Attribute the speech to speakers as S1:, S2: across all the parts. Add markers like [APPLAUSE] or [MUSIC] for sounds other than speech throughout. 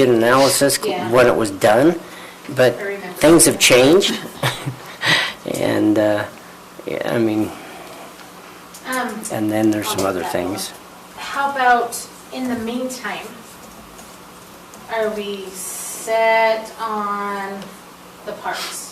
S1: did an analysis
S2: Yeah.
S1: when it was done, but
S2: I remember.
S1: things have changed. [LAUGHS] And, uh, yeah, I mean,
S2: Um,
S1: and then there's
S2: I'll
S1: some
S2: take
S1: other
S2: that one.
S1: things.
S2: How about, in the meantime, are we set on the parks?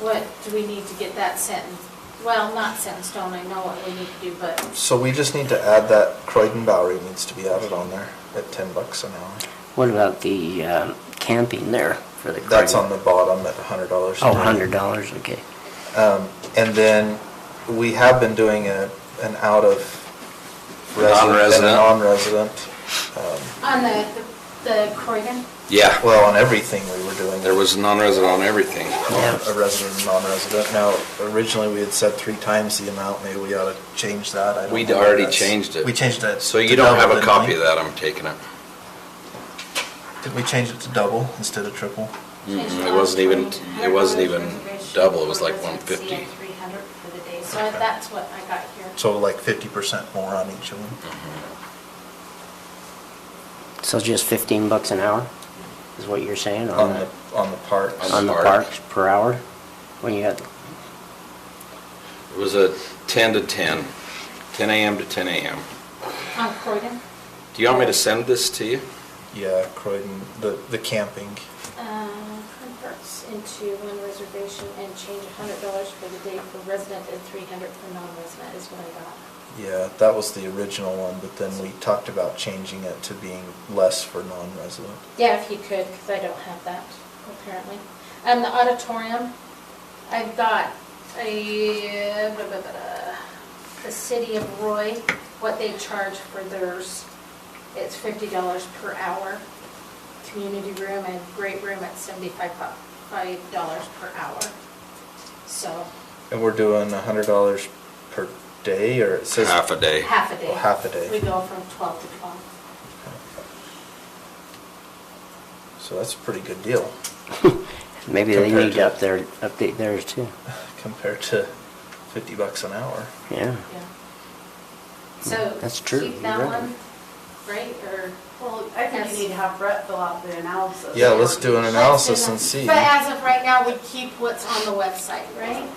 S2: What, do we need to get that set in, well, not set in stone, I know what we need to do, but,
S3: So we just need to add that Croydon Bowery needs to be added on there at ten bucks an hour.
S1: What about the um, camping there for the...
S3: That's
S1: Craig?
S3: on the bottom at hundred dollars.
S1: Oh, $100, okay.
S3: Um, and then we have been doing a, an out of resident and a
S4: Non-resident.
S3: non-resident. um,
S2: on the, the Corrigan?
S4: Yeah,
S3: Well, on everything we were doing.
S4: there was a non-resident on everything.
S1: Yeah.
S3: A resident, and non-resident. Now, originally, we had said three times the amount, maybe we ought to change that. I don't
S4: We'd
S3: know what
S4: already
S3: that's-
S4: changed it.
S3: We changed it.
S4: So
S3: to
S4: you don't have
S3: double,
S4: a
S3: didn't we?
S4: copy of that, I'm taking it.
S3: Did we change it to double instead of triple?
S4: Mm-mm, Mm-hmm. It wasn't even, it wasn't even double, it was like one fifty.
S2: Three hundred for the day, so that's what I got here.
S3: So like fifty percent more on each of them?
S4: Mm-hmm.
S1: So just 15 bucks an hour is what you're saying
S3: On
S1: on
S3: the,
S1: the,
S3: on the parks?
S1: on the
S4: park.
S1: parks per hour? When you got, [LAUGHS]
S4: It was a ten to 10, 10 AM to ten AM.
S2: On Corrigan?
S4: Do you want me to send this to you?
S3: Yeah, Croydon, the, the camping.
S2: Uh, Converts into one reservation and change hundred dollars for the day for resident and three hundred for non-resident is what I got.
S3: Yeah, that was the original one, but then we talked about changing it to being less for non-resident.
S2: Yeah, if you could, because I don't have that, apparently. And the auditorium, I've got a, blah, blah, blah, blah, the city of Roy, what they charge for theirs. It's fifty dollars per hour. Community room and great room at seventy-five, five dollars per hour. So,
S3: And we're doing a hundred dollars per day, or it says?
S4: Half a day.
S2: half a day.
S3: Oh, half a day.
S2: We go from twelve to twelve.
S3: So that's a pretty good deal [LAUGHS]
S1: maybe they
S3: Compared
S1: need
S3: to-
S1: to up their, update theirs too.
S3: compared to fifty bucks an hour.
S1: Yeah.
S2: Yeah.
S3: Hmm.
S2: So.
S1: That's true,
S2: Keep
S1: you're
S2: that
S1: right.
S2: one, right, or?
S5: Well, I think you need to have Brett fill out the analysis.
S3: Yeah, let's do an analysis and see.
S2: But as of right now, we keep what's on the website, right?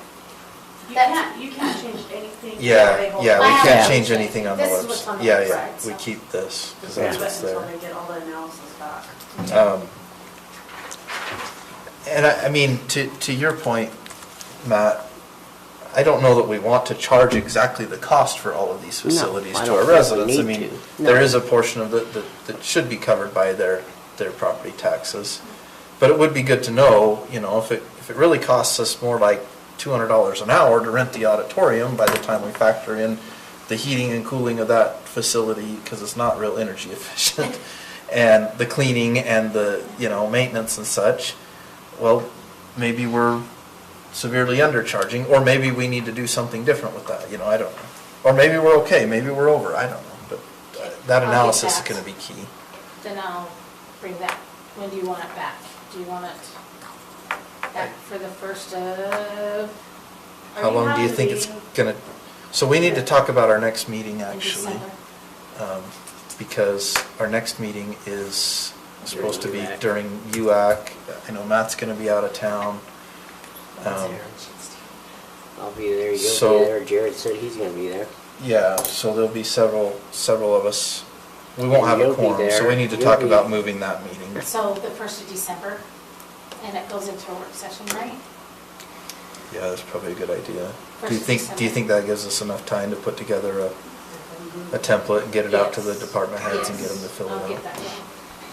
S5: You can't, you can't change anything.
S3: Yeah,
S5: They hold
S3: yeah,
S5: it
S3: we
S1: Wow.
S3: can't change anything on the
S2: This is what's on
S3: website.
S2: the
S3: Yeah, yeah,
S2: website,
S3: we
S2: so.
S3: keep this, because
S1: Yeah.
S3: that's what's
S5: Until they
S3: there.
S5: get all the analysis back.
S3: Um, And I, I mean, to, to your point, Matt, I don't know that we want to charge exactly the cost for all of these
S1: No,
S3: facilities
S1: I
S3: to
S1: don't
S3: our
S1: think we
S3: residents. I
S1: need
S3: mean,
S1: to.
S3: there
S1: No.
S3: is a portion of that, that, that should be covered by their, their property taxes. But it would be good to know, you know, if it, if it really costs us more like two hundred dollars an hour to rent the auditorium by the time we factor in the heating and cooling of that facility, because it's not real energy [LAUGHS] efficient, and the cleaning and the, you know, maintenance and such, well, maybe we're severely undercharging, or maybe we need to do something different with that, you know, I don't know. Or maybe we're okay, maybe we're over, I don't know, but uh,
S2: I'll
S3: that
S2: get
S3: analysis is
S2: that.
S3: gonna be key.
S2: Then I'll bring that, when do you want it back? Do you want it back for the first of?
S3: How long do you think it's gonna, so we need to talk about our next meeting,
S2: In
S3: actually.
S2: December.
S3: um, Because our next meeting is supposed to be
S1: UAC.
S3: during UAC. I know Matt's gonna be out of town. Um,
S1: I'll be there,
S3: So-
S1: you'll be there, Jared said he's gonna be there.
S3: Yeah, so there'll be several, several of us. We won't have a
S1: You'll be
S3: quorum, so we
S1: there.
S3: need to
S1: You'll
S3: talk
S1: be-
S3: about moving that meeting.
S2: So the first of December, and it goes into a work session, right?
S3: Yeah, that's probably a good idea. Do you
S2: Versus
S3: think, do you think that gives us enough time to put together a, a template and get it out to the
S2: Yes.
S3: department heads and get
S2: Yes.
S3: them to fill it out?
S2: I'll get that, yeah.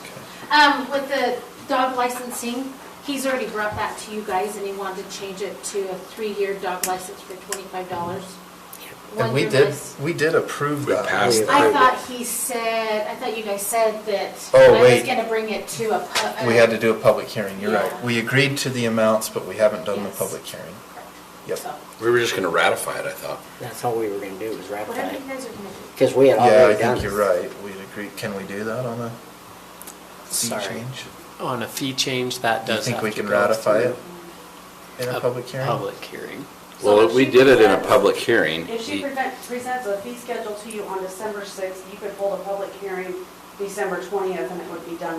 S3: Okay.
S2: Um, with the dog licensing, he's already brought that to you guys and he wanted to change it to a three-year dog license for twenty-five dollars.
S3: And we did, we did approve
S4: We
S3: that.
S4: passed
S1: that.
S2: I thought he said, I thought you guys said that.
S3: Oh,
S2: I was
S3: wait.
S2: gonna bring it to a. pu-
S3: We had to do a public hearing, you're
S2: Yeah.
S3: right. We agreed to the amounts, but we haven't done the
S2: Yes.
S3: public hearing. Yep.
S2: So,
S4: We were just gonna ratify it, I thought.
S1: That's all we were gonna do was ratify
S2: Whatever
S1: it,
S2: you guys are gonna
S1: because we had
S3: Yeah, I
S1: already done.
S3: think you're right. We agreed, can we do that on a fee
S6: Sorry.
S3: change?
S6: On Oh, a fee change, that
S3: Do you
S6: does
S3: think
S6: have
S3: we
S6: to
S3: can
S6: go
S3: ratify
S6: through
S3: it in a public hearing?
S6: Public hearing.
S4: Well, we did it in a public hearing.
S5: If she prevent- presents a fee schedule to you on December 6th, you could hold a public hearing December twentieth and it would be done